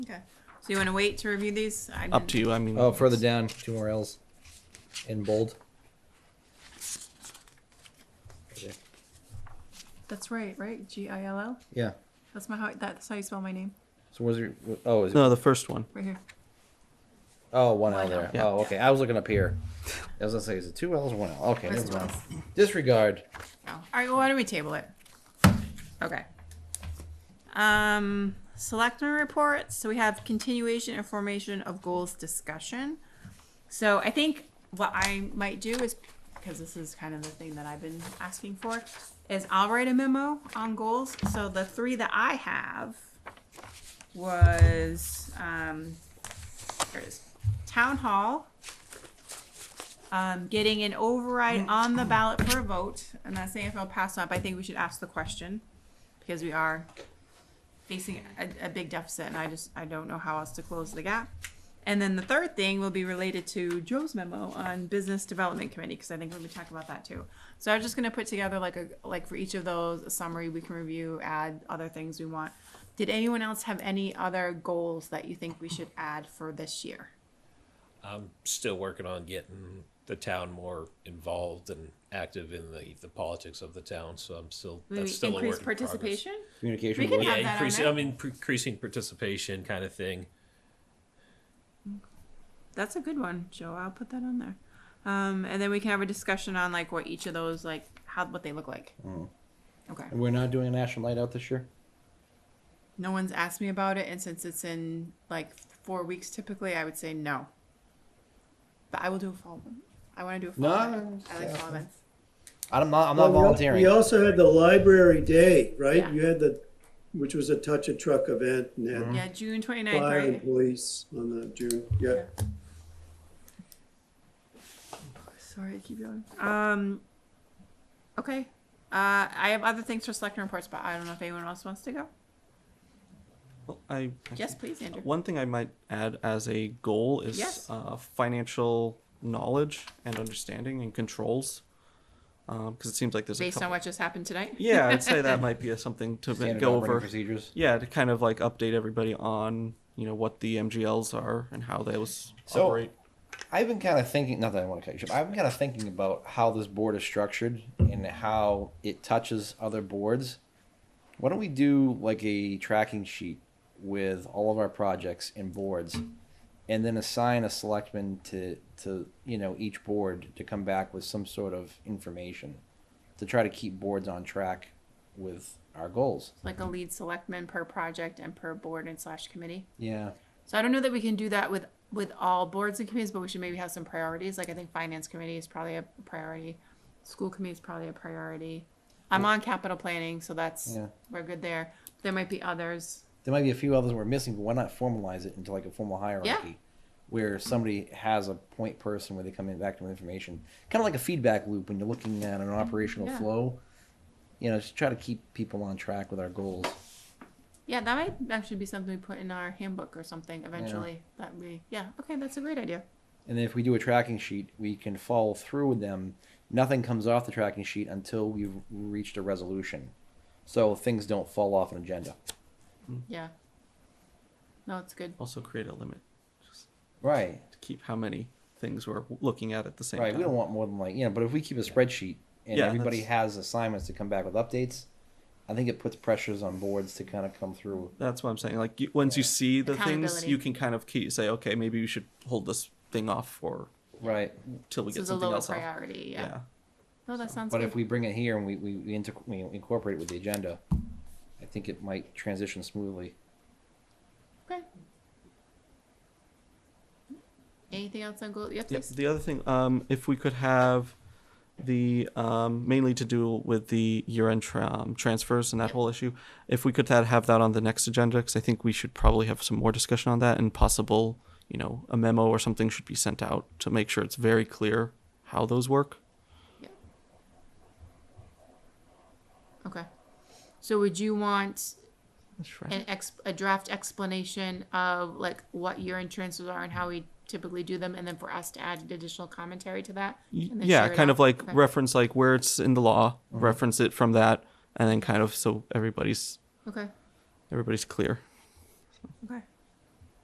Okay, so you want to wait to review these? I Up didn't- to you. I mean, Oh, further down, two more L's in bold. That's right, right? G I L L. Yeah. That's my how. That's how you spell my name, So where's your? Oh, is it? no, the first one. right here. Oh, one L One there. L. Yeah. Oh, okay. I was looking up here. I was gonna say, is it two L's or one L? Okay, First never mind. ones. Disregard. Oh. All right. Well, why don't we table it? Okay. Um, selectmen reports. So we have continuation and formation of goals discussion. So I think what I might do is, because this is kind of the thing that I've been asking for, is I'll write a memo on goals. So the three that I have was, um, there it is, town hall, um, getting an override on the ballot for a vote. I'm not saying if I'll pass up, I think we should ask the question, because we are facing a, a big deficit, and I just, I don't know how else to close the gap. And then the third thing will be related to Joe's memo on Business Development Committee, because I think we're gonna talk about that too. So I'm just gonna put together like a, like for each of those, a summary we can review, add other things we want. Did anyone else have any other goals that you think we should add for this year? I'm still working on getting the town more involved and active in the, the politics of the town. So I'm still Maybe that's still a increase work in progress. Oh, participation? Communication. We can board. have- that Yeah, on increasing. there. I'm in, increasing participation, kind of thing. That's a good one, Joe. I'll put that on there. Um, and then we can have a discussion on like what each of those like how what they look like. Mm. Okay. And We're not doing a national night out this year. No one's asked me about it, and since it's in like four weeks typically, I would say no. But I will do a fall one. I want to do a fall. No, event. I like yeah. fall events. I'm not. I'm not Well, we al- volunteering. We also had the library day, Yeah. right? You had the, which was a touch a truck event and had Mm. Yeah, June 29th, fire and right? police on the June, yeah. Sorry, I keep going. Um, okay. Uh, I have other things for selector reports, but I don't know if anyone else wants to go. Well, I Yes, please, Andrew. One thing I might add as a goal is Yes. uh, financial knowledge and understanding and controls, because it seems like there's a Based couple- on what just happened tonight. Yeah, I'd say that might be a, something to ma- Standard go operating over. procedures. Yeah, to kind of like update everybody on you know what the MGLs are and how those So- operate. I've been kind of thinking. Not that I want to cut you. short, but I've been kind of thinking about how this board is structured and how it touches other boards. Why don't we do like a tracking sheet with all of our projects and boards, and then assign a selectman to to you know each board to come back with some sort of information to try to keep boards on track with our goals. like a lead selectman per project and per board and slash committee. Yeah. So I don't know that we can do that with, with all boards and committees, but we should maybe have some priorities. Like I think finance committee is probably a priority. School committee is probably a priority. I'm on capital planning, so that's, Yeah. we're good there. There might be others. There might be a few others we're missing, but why not formalize it into like a formal hierarchy where somebody has a point person where they come in back to information, kind of like a feedback loop when you're looking at an operational Yeah. flow. You know, just try to keep people on track with our goals. Yeah, that might actually be something we put in our handbook or something eventually. That we, yeah, okay, that's a great idea. And then if we do a tracking sheet, we can follow through with them. Nothing comes off the tracking sheet until we've reached a resolution. So things don't fall off an agenda. Yeah. No, it's good. Also create a limit Right. to keep how many things we're looking at at the same Right. time. We don't want more than like, you know, but if we keep a spreadsheet and Yeah, everybody that's- has assignments to come back with updates, I think it puts pressures on boards to kind of come through. That's what I'm saying. Like you, once you see the things, Accountability. you can kind of key, say, okay, maybe you should hold this thing off for Right. till we So get it's a something lower else off. priority, yeah. No, that sounds But if good. we bring it here and we, we, we, inter- we incorporate it with the agenda, I think it might transition smoothly. Okay. Anything else on goal? Yep, Yep. please. The other thing, um, if we could have the um, mainly to do with the year-end tra- um, transfers and that Yep. whole issue, if we could that have that on the next agenda, because I think we should probably have some more discussion on that and possible, you know, a memo or something should be sent out to make sure it's very clear how those work. Okay. So would you want That's right. an ex, a draft explanation of like what your insurances are and how we typically do them, and then for us to add additional commentary to that? Y- and then yeah share it kind out? of like Okay. reference like where it's in the law reference it from that and then kind of so everybody's Okay, everybody's clear okay.